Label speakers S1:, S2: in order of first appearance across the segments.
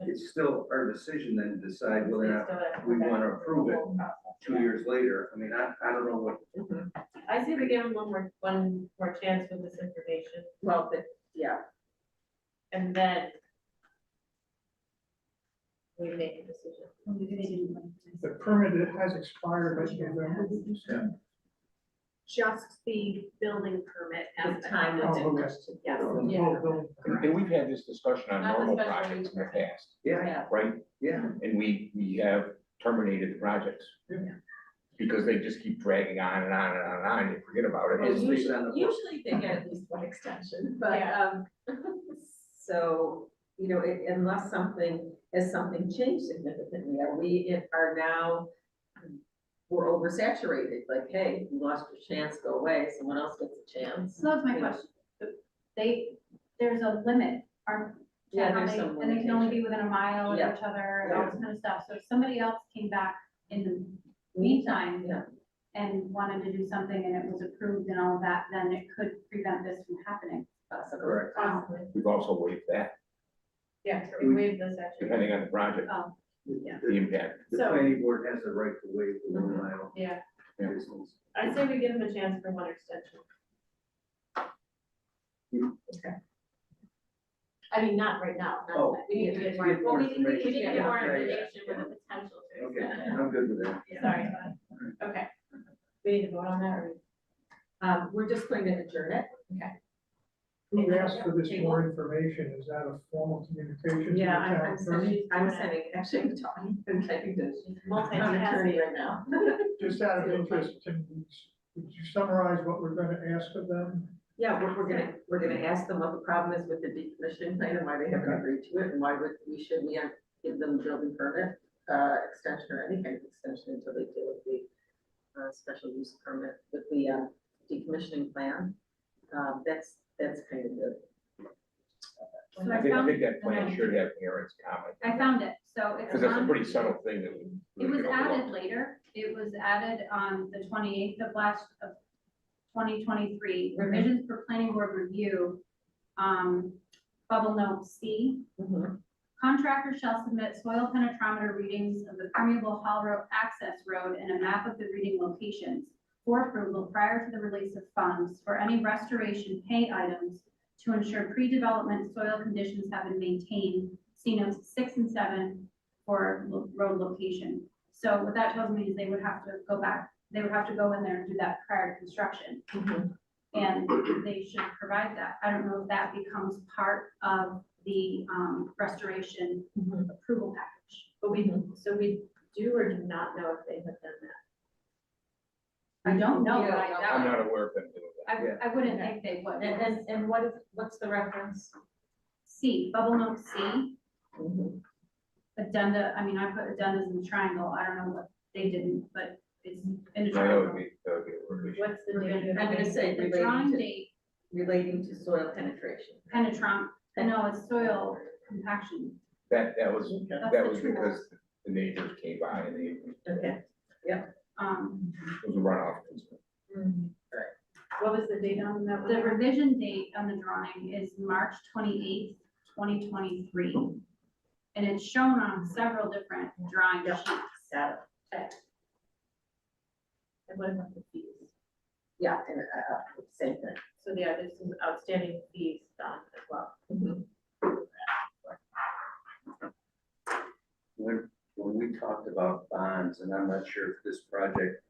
S1: it's still our decision then to decide whether or not we wanna approve it two years later. I mean, I, I don't know what,
S2: I say we give them one more, one more chance with this information
S3: Well, but, yeah,
S2: and then we make a decision.
S4: The permit has expired, but November, did you say?
S5: Just the building permit
S3: The
S5: at the
S3: time
S5: time of
S4: limit.
S5: it.
S4: Oh, okay.
S5: Yes.
S4: Oh,
S3: Yeah.
S4: building permit.
S6: And we've had this discussion on
S2: Not the
S6: normal
S2: special
S6: projects in the past,
S1: yeah,
S3: yeah,
S6: right?
S1: yeah.
S6: And we, we have terminated projects.
S4: Yeah.
S6: Because they just keep dragging on and on and on and on, you forget about it.
S1: It's
S6: It's-
S1: based on the-
S3: usually they get at least one extension, but, um, so, you know, it- unless something, has something changed significantly, are we, in- are now, we're oversaturated, like, hey, you lost your chance, go away, someone else gets a chance.
S5: So that's my question. They, there's a limit, aren't, to
S3: Yeah,
S5: how
S3: there's
S5: many-
S3: some
S5: and they can only be within a mile of
S3: Yeah.
S5: each other and all this kind of stuff. So if somebody else came back in the meantime
S3: Yeah.
S5: and wanted to do something and it was approved and all of that, then it could prevent this from happening.
S3: Possible.
S1: Correct.
S5: Um,
S6: We've also waived that,
S2: Oh, Yeah, so we waive this actually.
S6: depending on the project,
S5: oh,
S3: Yeah.
S6: the impact.
S1: The
S2: So-
S1: planning board has the right to waive the one mile
S2: Yeah,
S1: distance.
S2: I say we give them a chance for one extension. I mean, not right now, not
S1: Oh.
S2: that, we need to get more.
S1: Well, we need- we
S2: We
S1: need to
S2: get
S1: get
S2: more
S1: more
S2: information with the potential to
S1: Okay,
S2: extend it.
S1: I'm good with that.
S2: Sorry, but, okay. We need to vote on that, or?
S3: Um, we're just going to adjourn it.
S4: Who asked for this more information? Is that a formal communication to the
S3: Yeah, I'm,
S4: town
S3: I'm
S4: attorney?
S3: sending, Um, I'm sending, actually, I'm talking, I'm typing this. I'm an attorney
S2: Multitasking.
S3: right now.
S4: Just out of interest, can, you s- would you summarize what we're gonna ask of them?
S3: Yeah, we're, we're gonna, we're gonna ask them what the problem is with the decommissioning plan and why they haven't agreed to it, and why would, we shouldn't yet give them building permit, uh, extension or any kind of extension until they deal with the, uh, special use permit with the, uh, decommissioning plan. Um, that's, that's kind of the,
S5: so
S6: I
S5: I
S6: think, I
S5: found,
S6: think that plan should have Aaron's comment,
S5: I found it, so it's.
S6: because that's a
S5: on-
S6: pretty subtle thing that we.
S5: It
S6: we
S5: was
S6: can
S5: added
S6: overlook.
S5: later, it was added on the twenty-eighth of last, of twenty twenty-three,
S3: Mhm.
S5: revisions for planning board review. Um, bubble note C,
S3: Mhm.
S5: contractor shall submit soil penetrometer readings of the permeable hollow road access road and a map of the reading locations for approval prior to the release of funds for any restoration pay items to ensure pre-development soil conditions have been maintained, see notes six and seven for lo- road location. So what that tells me is they would have to go back, they would have to go in there and do that prior to construction. And they should provide that. I don't know if that becomes part of the um, restoration
S3: Mhm.
S5: approval package.
S2: But we, so we do or do not know if they have done that.
S5: I don't know, but
S3: Yeah,
S5: I,
S6: I'm not aware of them doing that.
S1: Yeah.
S5: I, I wouldn't think they would.
S3: And, and, and what is, what's the reference?
S5: C, bubble note C,
S3: Mhm.
S5: addenda, I mean, I put addendas in the triangle. I don't know what they didn't, but it's in the
S6: No, That would
S5: triangle.
S6: be, that would be a revision.
S2: What's the date?
S3: I'm gonna say
S5: The
S3: relating
S5: drawing
S3: to,
S5: date
S3: relating to soil penetration.
S5: penetrum, no, it's soil compaction.
S6: That, that was,
S5: That's
S6: that
S5: the
S6: was
S5: true
S6: because the neighbors came by and they,
S3: Okay.
S5: Um,
S6: it was a runoff.
S2: What was the date on that
S5: the
S2: one?
S5: revision date on the drawing is March twenty-eighth, twenty twenty-three. And it's shown on several different drawing
S3: Yeah.
S5: sheets.
S3: Got it.
S2: And what about the fees?
S3: Yeah, and, uh, uh, same thing.
S2: So yeah, there's some outstanding fees done as well.
S1: When, when we talked about bonds, and I'm not sure if this project,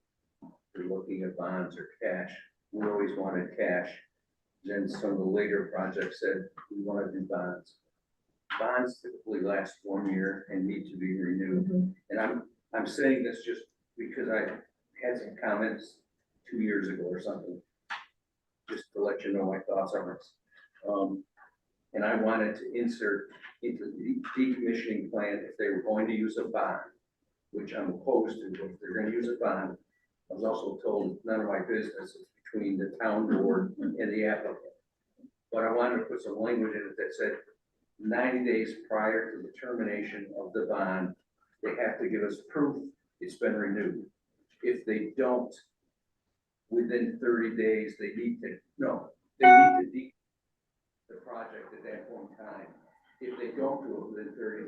S1: we're looking at bonds or cash, we always wanted cash. Then some of the later projects said, we want to do bonds. Bonds typically last one year and need to be renewed. And I'm, I'm saying this just because I had some comments two years ago or something. Just to let you know my thoughts on this. Um, and I wanted to insert into the decommissioning plan if they were going to use a bond, which I'm opposed to, but if they're gonna use a bond. I was also told none of my business is between the town board and the applicant. But I wanted to put some language in it that said ninety days prior to the termination of the bond, they have to give us proof it's been renewed. If they don't, within thirty days, they need to, no, they need to de- the project at that point in time. If they don't do it within thirty